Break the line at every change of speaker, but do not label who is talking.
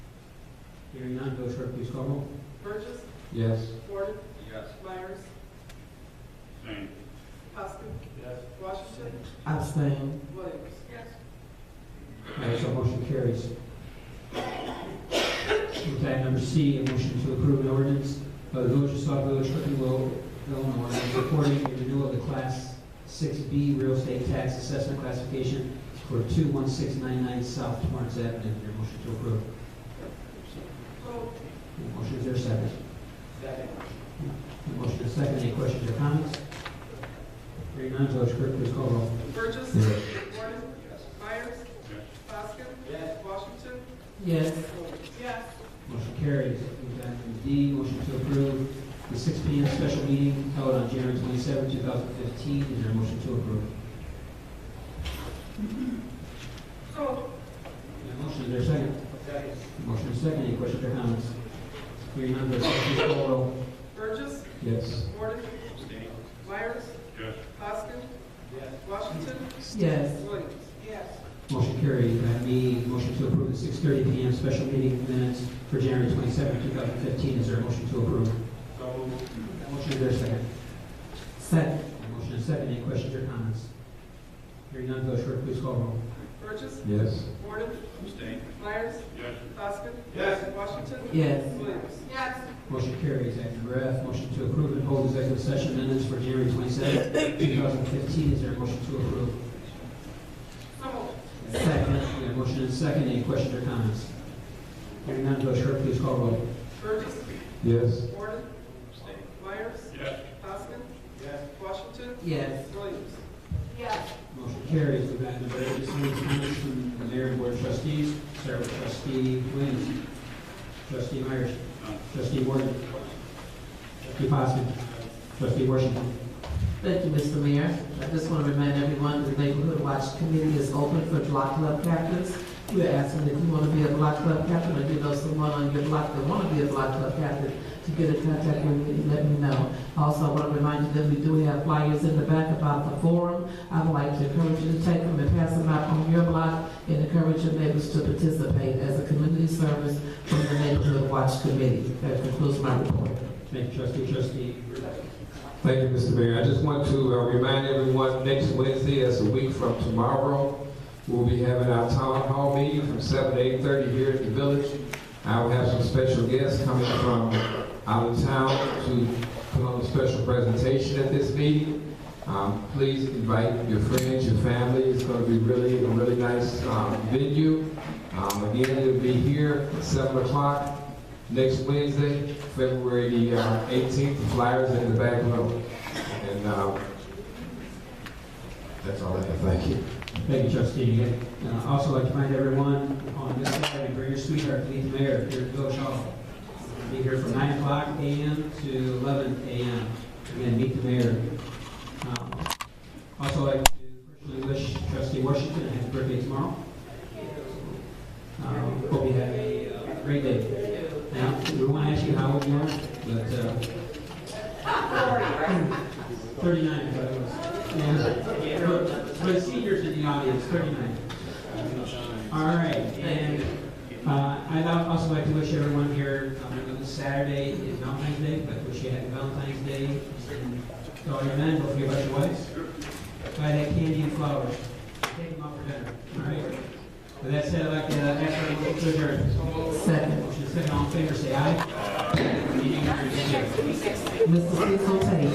Hearing none, Madam Clerk, please call roll.
Burgess.
Yes.
Gordon.
Yes.
Myers.
Same.
Poskett.
Yes.
Washington.
abstain,
Williams. Yes.
Aye, so motion carries. With item number C, a motion to approve an ordinance of the Village of Saw Village, Cliftonville, Illinois, supporting the renewal of the Class 6B real estate tax assessment classification for 21699 South Torrance Avenue. Your motion to approve.
Vote.
Your Motion is there, a second.
Second.
Your Motion is second. Any questions or comments? Hearing none, Village Clerk, please call roll.
Burgess.
Yes.
Gordon.
Yes.
Myers.
Yes.
Poskett.
Yes.
Washington.
yes,
Williams. Yes.
Motion carries. Move on to D, motion to approve the 6 PM special meeting held on January 27, 2015. Is there a motion to approve?
Vote.
Your motion, is there a second?
Second.
Motion is second, any questions or comments? Hearing none, Madam Clerk, please call roll.
Burgess.
Yes.
Gordon.
Same.
Myers.
Yes.
Poskett.
Yes.
Washington.
yes,
Williams. Yes.
Motion carries. Item E, motion to approve the 6:30 PM special meeting minutes for January 27, 2015. Is there a motion to approve?
So moved.
Motion, is there a second?
second,
Motion is second, any questions or comments? Hearing none, Madam Clerk, please call roll.
Burgess.
Yes.
Gordon.
Abstain.
Myers.
Yes.
Poskett.
Yes.
Washington.
yes,
Williams. Yes.
Motion carries. Item F, motion to approve and hold executive session minutes for January 27, 2015. Is there a motion to approve?
So moved.
Second. We have motion and second. Any questions or comments? Hearing none, Madam Clerk, please call roll.
Burgess.
Yes.
Gordon.
Abstain.
Myers.
Yes.
Poskett.
Yes.
Washington.
yes,
Williams. Yes.
Motion carries. We've got the various business minutes from the mayor and board of trustees. Start with trustee Williams. Trustee Myers.
None.
Trustee Warden. Trustee Poskett. Trustee Washington.
Thank you, Mr. Mayor. I just want to remind everyone, the Neighborhood Watch Committee is open for block club captains. We're asking if you want to be a block club captain, or you know someone on your block that want to be a block club captain, to get in contact with me, let me know. Also, I want to remind you that we do have flyers in the back about the forum. I would like to encourage you to take them and pass them out on your block, and encourage your neighbors to participate as a community service from the Neighborhood Watch Committee. That concludes my report.
Thank you, trustee. Trustee Ruben.
Thank you, Mr. Mayor. I just want to uh, remind everyone, next Wednesday, that's a week from tomorrow, we'll be having our town hall meeting from seven to eight-thirty here at the village. I will have some special guests coming from out of town to put on a special presentation at this meeting. Um, Please invite your friends, your family. It's going to be really, a really nice um, venue. Um, Again, it'll be here at seven o'clock next Wednesday. February the uh, 18th, the Flyers in the back row. And uh, that's all I have, thank you.
Thank you, trustee. And I'd also like to remind everyone on this Saturday, bring your sweetheart, lead the mayor here at Village Hall. We'll Be here from 9 o'clock AM to 11 AM. Again, meet the mayor. Um, Also, I'd like to personally wish trustee Washington a happy birthday tomorrow. Um, Hope you have a uh, great day. Now, we want to ask you how old you are, but... uh, 39, I thought it was. uh, Yeah. For the seniors in the audience, 39. All right, and uh, I'd al- also like to wish everyone here, um, I know this Saturday is Valentine's Day, but wish you happy Valentine's Day. And To all your men, don't forget about your wives. Buy that candy and flowers. Take them out for dinner, all right? With that said, I'd like to uh, ask everyone to adjourn.
Second.
Motion second, all in favor, say aye. Meeting adjourned.
Mr. Cecil Tate.